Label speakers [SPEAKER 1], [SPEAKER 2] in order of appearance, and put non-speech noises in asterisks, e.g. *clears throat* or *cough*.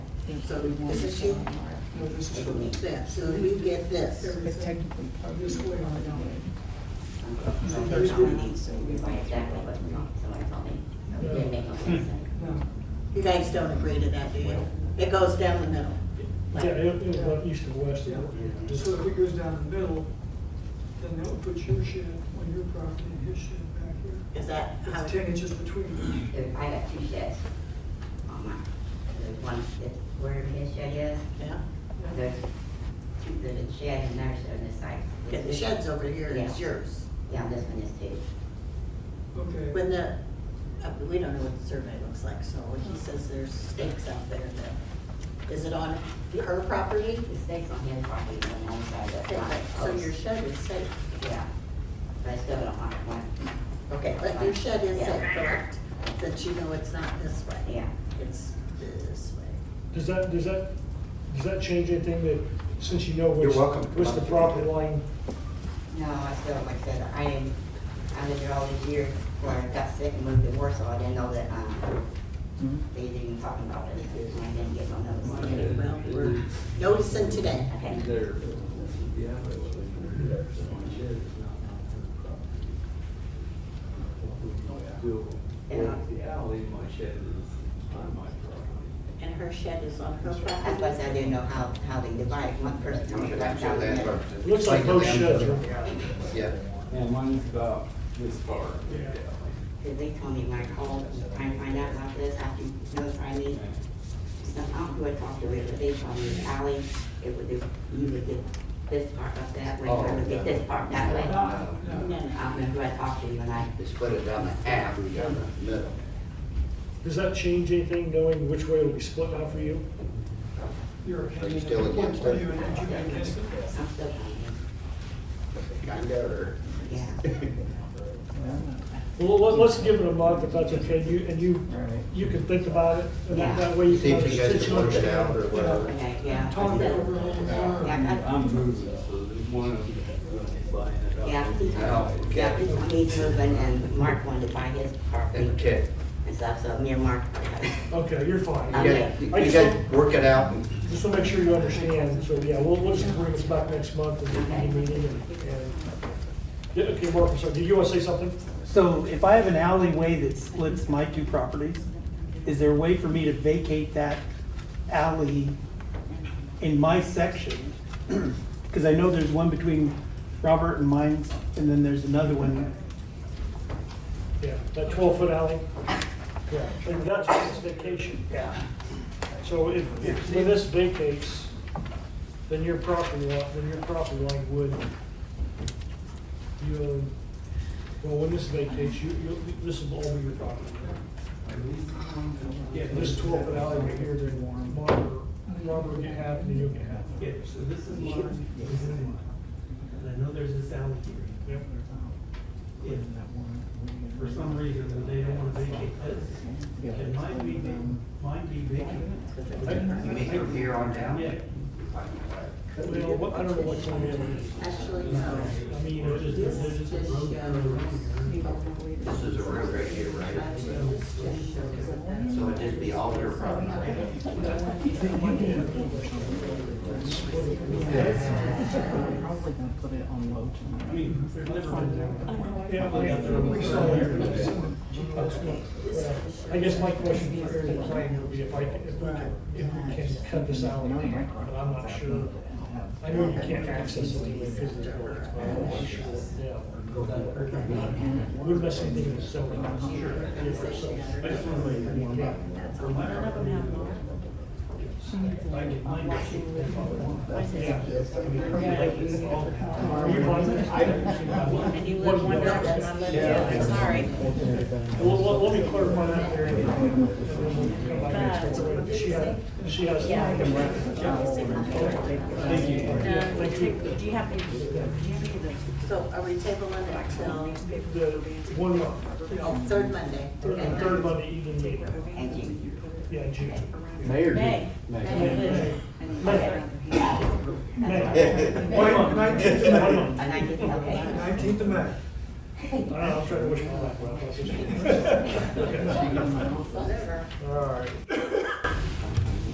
[SPEAKER 1] think
[SPEAKER 2] So
[SPEAKER 1] we want
[SPEAKER 2] this is you?
[SPEAKER 1] some more.
[SPEAKER 2] No, this is for me. That, so you get this.
[SPEAKER 1] But technically, probably
[SPEAKER 2] This way.
[SPEAKER 1] not, don't
[SPEAKER 2] So
[SPEAKER 1] we?
[SPEAKER 2] here's what we need.
[SPEAKER 1] So we
[SPEAKER 3] Right,
[SPEAKER 1] might
[SPEAKER 3] exactly what someone told me. It didn't make no sense.
[SPEAKER 1] No.
[SPEAKER 2] You guys don't agree to that, do you? It goes down the middle.
[SPEAKER 4] Yeah, it, it was east and west.
[SPEAKER 5] Yeah.
[SPEAKER 4] Just-
[SPEAKER 5] So if it goes down the middle, then that would put your shed on your property and his shed back here.
[SPEAKER 2] Is that how?
[SPEAKER 5] It's ten inches between them.
[SPEAKER 3] If I got two sheds on mine, there's one, it's wherever his shed is,
[SPEAKER 2] Yeah,
[SPEAKER 3] there's two, there's a shed and there's shed on this side.
[SPEAKER 2] okay, the shed's over here, it's
[SPEAKER 3] Yeah.
[SPEAKER 2] yours.
[SPEAKER 3] Yeah, this one is too.
[SPEAKER 5] Okay,
[SPEAKER 2] When the, uh, we don't know what the survey looks like, so when he says there's stakes out there, that, is it on her property?
[SPEAKER 3] The stakes on his property is on one side of the
[SPEAKER 2] Okay,
[SPEAKER 3] line.
[SPEAKER 2] So your shed is safe.
[SPEAKER 3] Yeah, but I still don't want one,
[SPEAKER 2] Okay, but your shed is
[SPEAKER 3] Yeah.
[SPEAKER 2] safe, correct? That you know it's not this way.
[SPEAKER 3] yeah.
[SPEAKER 2] It's this way.
[SPEAKER 4] Does that, does that, does that change anything that, since you know which,
[SPEAKER 6] You're welcome.
[SPEAKER 4] which the property line?
[SPEAKER 3] No, I still, like I said, I didn't, I lived here all these years, when I got sick and moved to Warsaw, I didn't know that, um, they didn't even talk about it, and I didn't get no notice.
[SPEAKER 2] Well, we're noticing today.
[SPEAKER 3] Okay.
[SPEAKER 7] There. Yeah. but it's in there, so my shed is not on her property. Still, well, the alley, my shed is on my property.
[SPEAKER 2] And her shed is on her
[SPEAKER 3] That's why I
[SPEAKER 2] property.
[SPEAKER 3] said I didn't know how, how they divide, one person comes
[SPEAKER 6] Should
[SPEAKER 3] right
[SPEAKER 6] have
[SPEAKER 3] down the
[SPEAKER 6] that
[SPEAKER 3] middle.
[SPEAKER 6] part.
[SPEAKER 4] It looks like both sheds are,
[SPEAKER 6] Yeah.
[SPEAKER 7] And mine's about this far.
[SPEAKER 4] Yeah.
[SPEAKER 3] Cause they told me when I called, trying to find out about this, after you notified me, some, I don't know who I talked to, but they told me the alley, it would, do- you would get this part up that way, I would get this part that
[SPEAKER 2] Oh,
[SPEAKER 3] way. I
[SPEAKER 6] No, no.
[SPEAKER 2] No, no.
[SPEAKER 3] don't know who I talked to, when I,
[SPEAKER 6] They split it down the half, we got the middle.
[SPEAKER 4] does that change anything, knowing which way it'll be split out for you?
[SPEAKER 5] you're.
[SPEAKER 6] Are you still against it?
[SPEAKER 5] Are you, did you against it?
[SPEAKER 3] I'm still trying.
[SPEAKER 6] Kinda, or?
[SPEAKER 3] Yeah.
[SPEAKER 4] Well, let, let's give it a month if that's okay, you, and you, you can think about it, and that, that way you
[SPEAKER 6] See
[SPEAKER 4] can.
[SPEAKER 6] if you guys can work it out or whatever.
[SPEAKER 3] Okay, yeah.
[SPEAKER 5] Talk it over all the time.
[SPEAKER 3] Yeah, I-
[SPEAKER 7] I'm moving, so there's one of uh, them buying it up.
[SPEAKER 3] Yeah, he-
[SPEAKER 6] Oh, okay.
[SPEAKER 3] yeah, he told me to, and, and Mark wanted to buy his property
[SPEAKER 6] Okay,
[SPEAKER 3] and stuff, so me and Mark.
[SPEAKER 4] Okay, you're fine.
[SPEAKER 6] you
[SPEAKER 3] Okay.
[SPEAKER 6] guys, you guys work it out and
[SPEAKER 4] Just to make sure you understand, so yeah, we'll, we'll just bring this back next month and do the meeting and, and. Yeah, okay, Mark, sorry, did you wanna say something?
[SPEAKER 8] So if I have an alleyway that splits my two properties, is there a way for me to vacate that alley in my section? *clears throat* Because I know there's one between Robert and mine, and then there's another one.
[SPEAKER 4] Yeah, that twelve foot alley. Yeah, and that's his vacation.
[SPEAKER 8] Yeah.
[SPEAKER 4] So if, if when this vacates, then your property line, then your property line would, you, own- well, when this vacates, you, you, this will all be your property. Yeah, this twelve foot alley right here, then Robert, Robert can have, and you can have.
[SPEAKER 9] Yeah, so this is mine, this is mine. And I know there's this alley here.
[SPEAKER 4] Yep.
[SPEAKER 9] If for some reason they don't wanna vacate this, then mine be, mine be vacated.
[SPEAKER 6] you meet from here on down?
[SPEAKER 9] Yeah.
[SPEAKER 4] Well, what- I don't know what's on it.
[SPEAKER 2] Actually, no.
[SPEAKER 9] I mean, there's just, there's just a road going around here.
[SPEAKER 6] This is a road right here, right? So it'd just be all your property.
[SPEAKER 1] Probably gonna put it on low tonight.
[SPEAKER 9] I mean, there's never been.
[SPEAKER 4] Yeah, we we saw your- that's good. I guess my question for area planning would be if I, if we can, if we can cut this alley, but I'm not sure. I know you can't access it because of the works, but I'm not sure, yeah. Wouldn't mess anything in the zone.
[SPEAKER 9] I just wanna make it for my property. Like, mine
[SPEAKER 4] Are you on?
[SPEAKER 1] And you live one direction, I live the other, sorry.
[SPEAKER 4] Well, let, let me clarify that area. and then we'll come back next week. She has, she has. Thank you.
[SPEAKER 1] Um,
[SPEAKER 4] Thank you.
[SPEAKER 1] take- Do you have, any- do you have any of
[SPEAKER 2] So are we tabling it till,
[SPEAKER 4] The one month,
[SPEAKER 2] oh, third Monday?
[SPEAKER 4] third,
[SPEAKER 2] Okay.
[SPEAKER 4] third Monday evening meeting,
[SPEAKER 3] Thank you.
[SPEAKER 4] yeah, June.
[SPEAKER 1] the?
[SPEAKER 7] Mayor
[SPEAKER 1] May.
[SPEAKER 4] May.
[SPEAKER 1] May.
[SPEAKER 4] May.
[SPEAKER 5] Why not? Nineteenth of
[SPEAKER 4] One
[SPEAKER 5] May.
[SPEAKER 4] month.
[SPEAKER 3] And I did, okay.
[SPEAKER 5] Nineteenth of May.
[SPEAKER 4] I don't know, I'm
[SPEAKER 3] *laughs*
[SPEAKER 4] trying to wish my life well. All right.